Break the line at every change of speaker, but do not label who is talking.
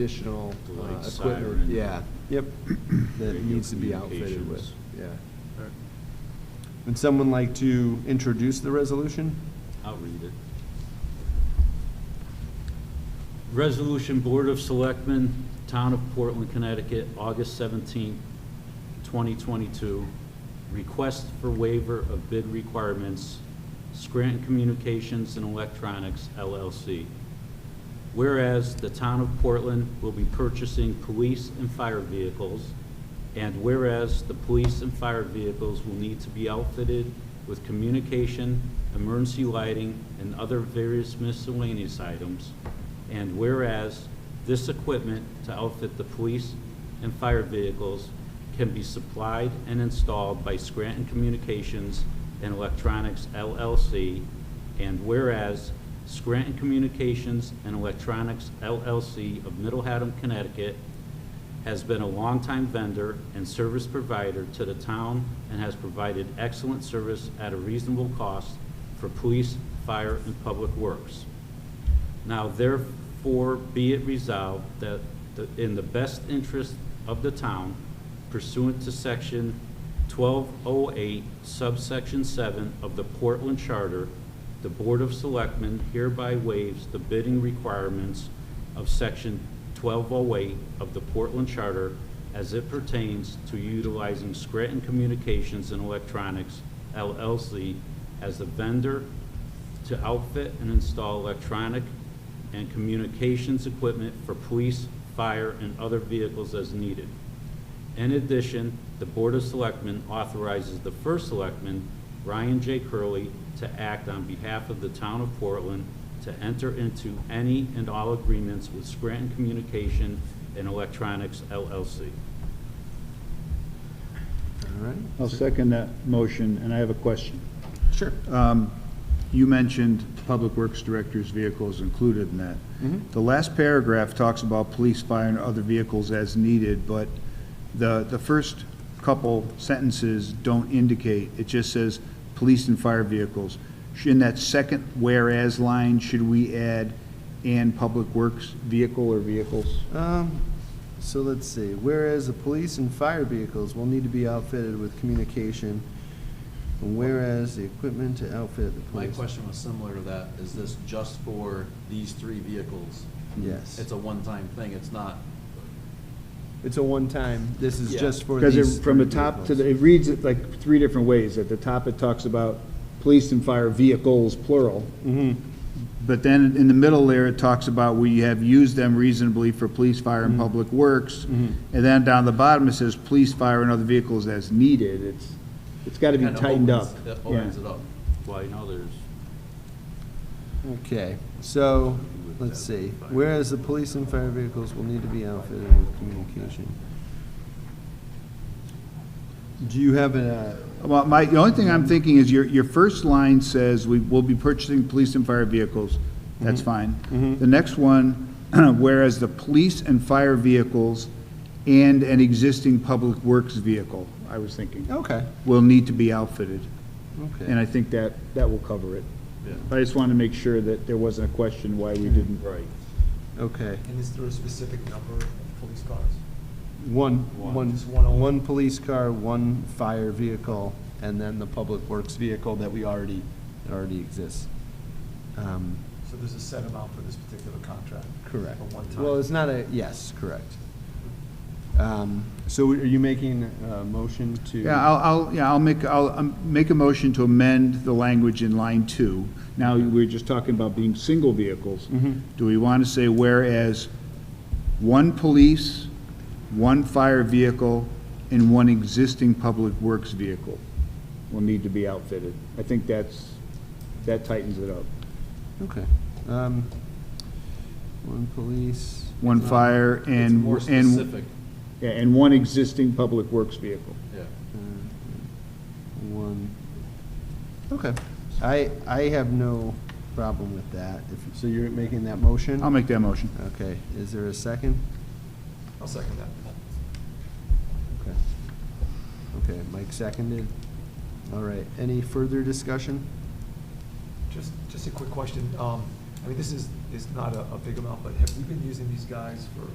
additional uh,
Like
equipment,
siren.
yeah, yep, that
Radio
needs to be outfitted with,
communications.
yeah. Would someone like to introduce the resolution?
I'll read it. Resolution Board of Selectmen, Town of Portland, Connecticut, August 17, 2022. Request for waiver of bid requirements, Scranton Communications and Electronics LLC. Whereas the town of Portland will be purchasing police and fire vehicles, and whereas the police and fire vehicles will need to be outfitted with communication, emergency lighting, and other various miscellaneous items, and whereas this equipment to outfit the police and fire vehicles can be supplied and installed by Scranton Communications and Electronics LLC, and whereas Scranton Communications and Electronics LLC of Middle Haddam, Connecticut has been a longtime vendor and service provider to the town and has provided excellent service at a reasonable cost for police, fire, and public works. Now therefore be it resolved that the- in the best interest of the town pursuant to section 1208 subsection 7 of the Portland Charter, the Board of Selectmen hereby waives the bidding requirements of section 1208 of the Portland Charter as it pertains to utilizing Scranton Communications and Electronics LLC as the vendor to outfit and install electronic and communications equipment for police, fire, and other vehicles as needed. In addition, the Board of Selectmen authorizes the first selectman, Ryan J. Curley, to act on behalf of the town of Portland to enter into any and all agreements with Scranton Communication and Electronics LLC.
All right,
I'll second that motion, and I have a question.
sure.
You mentioned Public Works Director's vehicles included in that. The last paragraph talks about police, fire, and other vehicles as needed, but the, the first couple sentences don't indicate. It just says, police and fire vehicles. Sh- In that second whereas line, should we add, and Public Works vehicle or vehicles?
Um, so let's see, whereas the police and fire vehicles will need to be outfitted with communication, and whereas the equipment to outfit the
My
police.
question was similar to that. Is this just for these three vehicles?
Yes,
It's a one-time thing. It's not,
it's a one-time, this is
Yeah.
just for these
Because it, from the
three
top to
vehicles.
the, it reads it like three different ways. At the top, it talks about police and fire vehicles, plural. Mm-hmm. But then in the middle there, it talks about we have used them reasonably for police, fire, and public works. And then down the bottom, it says police, fire, and other vehicles as needed. It's, it's got to be
Kinda
tightened up.
opens- it opens
Yeah.
it up.
Well, you know, there's
Okay, so, let's see, whereas the police and fire vehicles will need to be outfitted with communication. Do you have uh, a,
Well, my, the only thing I'm thinking is your, your first line says, we will be purchasing police and fire vehicles. That's fine. The next one, whereas the police and fire vehicles and an existing public works vehicle, I was thinking,
okay,
will need to be outfitted. And
okay,
I think that, that will cover it. I just wanted to make sure that there wasn't a question why we didn't. Right.
okay.
And is there a specific number of police cars?
One,
One.
one,
Just one only.
one police car, one fire vehicle, and then the public works vehicle that we already, that already exists. Um,
So there's a set amount for this particular contract?
Correct.
For one time?
Well, it's not a, yes, correct. Um, So are you making a motion to?
Yeah, I'll, I'll, yeah, I'll make, I'll um, make a motion to amend the language in line two. Now, we were just talking about being single vehicles.
Mm-hmm.
Do we want to say whereas one police, one fire vehicle, and one existing public works vehicle will need to be outfitted? I think that's, that tightens it up.
Okay. Um, One police.
One fire
It's
and,
more
and,
specific,
yeah, and one existing public works vehicle.
yeah.
uh, One, okay. I, I have no problem with that. If- So you're making that motion?
I'll make that motion.
Okay, is there a second?
I'll second that.
Okay. Okay, Mike seconded. All right, any further discussion?
Just, just a quick question. Um, I mean, this is, is not a, a big amount, but have we been using these guys for